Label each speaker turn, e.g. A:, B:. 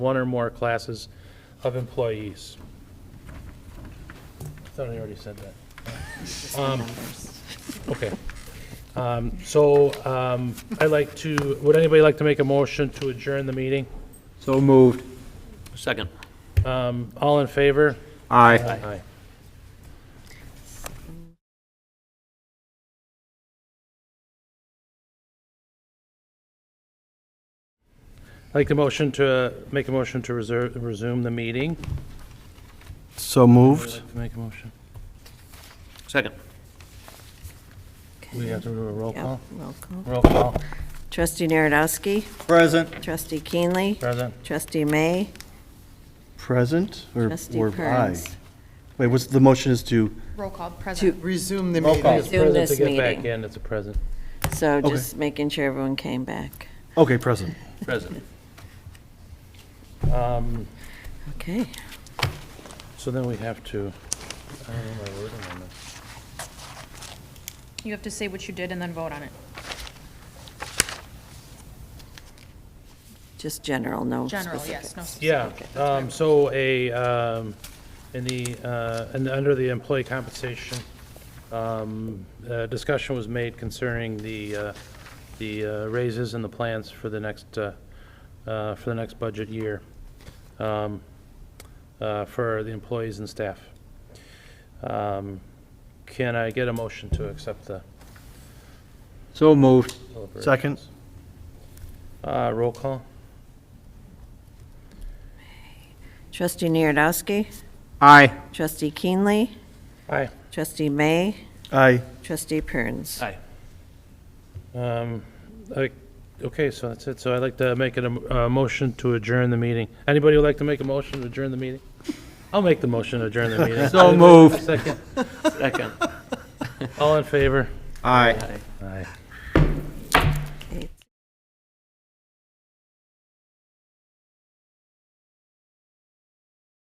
A: one or more classes of employees. I thought I already said that. Um, Okay. Um, So um, I'd like to, would anybody like to make a motion to adjourn the meeting?
B: So moved.
C: Second.
A: Um, All in favor?
B: Aye.
A: Aye. I'd like the motion to, make a motion to reserve, resume the meeting.
B: So moved.
A: Make a motion.
C: Second.
A: We have to do a roll
D: Yep,
A: call?
D: roll call.
A: Roll call,
D: Trustee Narodowski,
B: Present.
D: trustee Keenley,
A: present.
D: trustee May,
B: Present or
D: trustee
B: or aye?
D: Perns.
B: Wait, what's, the motion is to,
E: Roll call, present.
F: resume the
A: Roll call.
F: meeting.
A: It's
D: Resume
A: present to
D: this
A: get back
D: meeting.
A: in, it's a present.
D: So
B: Okay.
D: just making sure everyone came back.
B: okay, present.
C: Present.
A: Um,
D: Okay.
A: So then we have to, I don't know my wording on this.
E: You have to say what you did and then vote on it.
D: Just general, no
E: General,
D: specific.
E: yes, no.
A: Yeah,
D: Okay.
A: um, so a, um, in the, uh, and under the employee compensation, um, uh, discussion was made concerning the, uh, the uh, raises and the plans for the next, uh, uh, for the next budget year, um, uh, for the employees and staff. Um, Can I get a motion to accept the?
B: So moved.
A: deliberations?
B: Second.
A: Uh, roll call?
D: Trustee Narodowski,
B: Aye.
D: trustee Keenley,
A: Aye.
D: trustee May,
B: Aye.
D: trustee Perns.
C: Aye.
A: Um, I- Okay, so that's it. So I'd like to make it a, a motion to adjourn the meeting. Anybody would like to make a motion to adjourn the meeting? I'll make the motion to adjourn the meeting.
B: So moved.
A: Second.
C: Second.
A: All in favor?
B: Aye.
A: Aye.